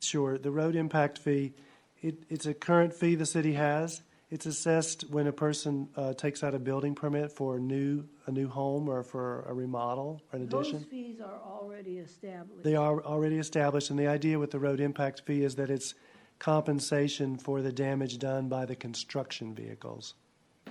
Sure, the road impact fee, it, it's a current fee the city has. It's assessed when a person uh, takes out a building permit for a new, a new home or for a remodel or an Those addition. fees are already established. They are already established, and the idea with the road impact fee is that it's compensation for the damage done by the construction vehicles,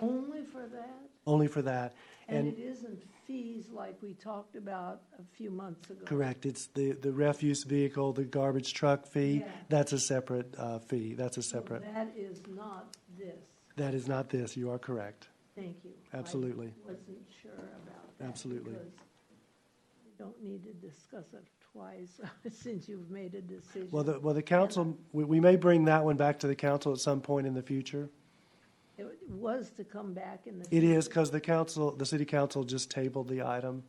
Only for that? only for that. And And, it isn't fees like we talked about a few months ago? correct, it's the, the refuse vehicle, the garbage truck fee, Yeah. Oh, that's a separate uh, fee, that's a So separate. That is not this. That is not this, you are correct. Thank you. Absolutely. I wasn't sure about that. Absolutely. because We don't need to discuss it twice since you've made a decision. Well, the, well, the council, we, we may bring that one back to the council at some point in the future. It was to come back in the. It is, future. because the council, the city council just tabled the item.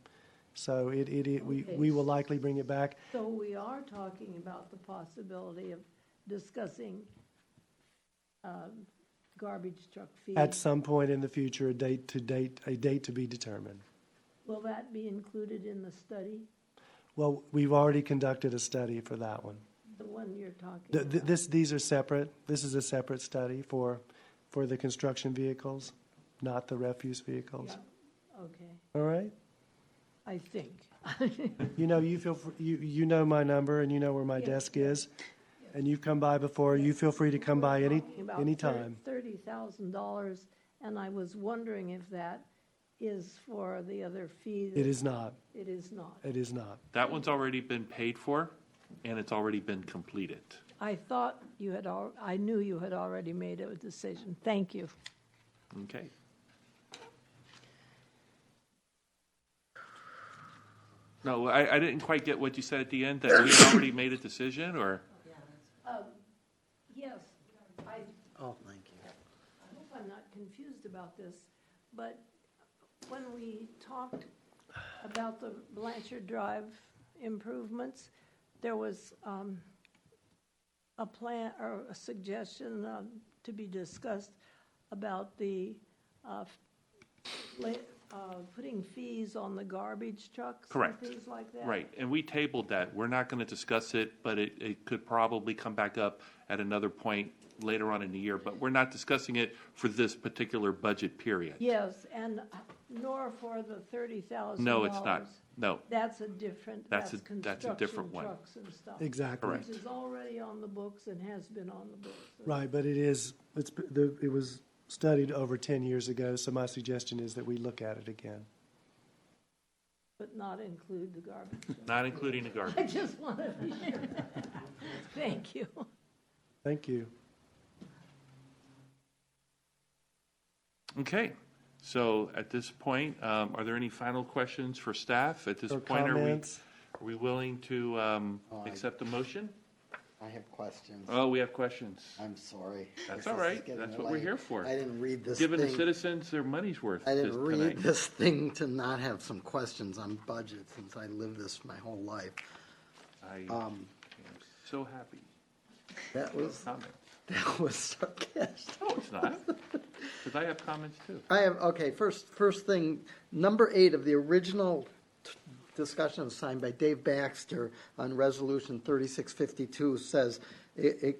So it, it, it, we, we will likely bring it back. So we are talking about the possibility of discussing um, garbage truck fees. At some point in the future, a date to date, a date to be determined. Will that be included in the study, Well, we've already conducted a study for that one. the one you're talking Th- th- about? this, these are separate, this is a separate study for, for the construction vehicles, not the refuse vehicles. Yeah, Okay, All right? I think. You know, you feel, fr- you, you know my number and you know where my Yes, desk is. And you've come by before. You feel free to come by any, Talking about any thir- time. Thirty thousand dollars, and I was wondering if that is for the other fee. that- It is not. It is not. It is not. That one's already been paid for, and it's already been completed. I thought you had al, I knew you had already made a decision. Thank you. Okay. No, I, I didn't quite get what you said at the end, that we had already made a decision, or? Yes, I, Oh, thank you. I hope I'm not confused about this, but when we talked about the Blanchard Drive improvements, there was um, a plan or a suggestion um, to be discussed about the, uh, la- uh, putting fees on the garbage trucks and Correct. things like that. Right, and we tabled that. We're not gonna discuss it, but it, it could probably come back up at another point later on in the year, but we're not discussing it for this particular budget period. Yes, and uh, nor for the thirty thousand No, it's not. No, That's a different, that's That's a- construction that's a different one. trucks and stuff. Exactly. Correct. Which is already on the books and has been on the books. Right, but it is, it's, p- the, it was studied over ten years ago, so my suggestion is that we look at it again. But not include the garbage. not including the garbage. I just want to be sure. Thank you. Thank you. Okay, so at this point, um, are there any final questions for staff? At this Or point, are we, are comments? we willing to um, Oh, I- accept the motion? I have questions. Oh, we have questions. I'm sorry. That's This all is right. getting That's what we're late. here for. I didn't read this Giving the thing. citizens their money's worth I this didn't read tonight. this thing to not have some questions on budget since I lived this my whole life. I am Um, so happy. That was, Comments? that was sarcastic. No, it's not, because I have comments too. I have, okay, first, first thing, number eight of the original t- discussion signed by Dave Baxter on Resolution 3652 says it, it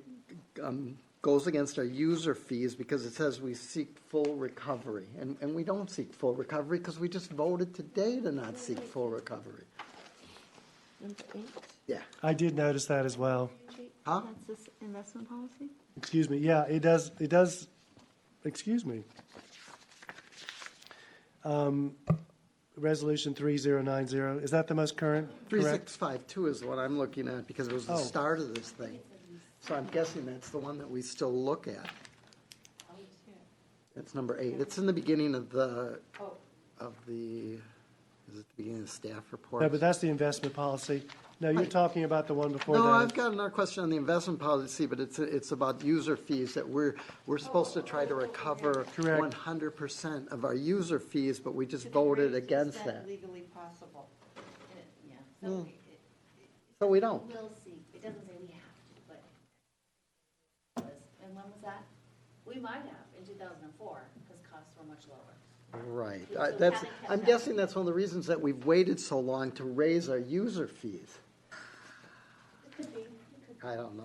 um, goes against our user fees because it says we seek full recovery. And, and we don't seek full recovery because we just voted today to not seek full recovery. Number eight, Yeah. I did notice that as well. Jake, Huh? that's this investment policy? Excuse me, yeah, it does, it does, excuse me. Um, Resolution three zero nine zero, is that the most current? Correct. 3652 is what I'm looking at because it was the Oh. start of this thing. So I'm guessing that's the one that we still look at. That's number eight. It's in the beginning of the, of the, is it the beginning of the staff report? No, but that's the investment policy. No, you're talking about the one before that. No, I've got another question on the investment policy, but it's, it's about user fees that we're, we're supposed to try to recover Correct. one hundred percent of our user fees, but we just voted against that. Legally possible. And it- Yeah, so it- it- So we don't. we'll see. It doesn't say we have to, but. And when was that? We might have in two thousand and four, because costs were much lower. Right, So I- we that's, haven't kept I'm up. guessing that's one of the reasons that we've waited so long to raise our user fees. It could be, it could I don't know.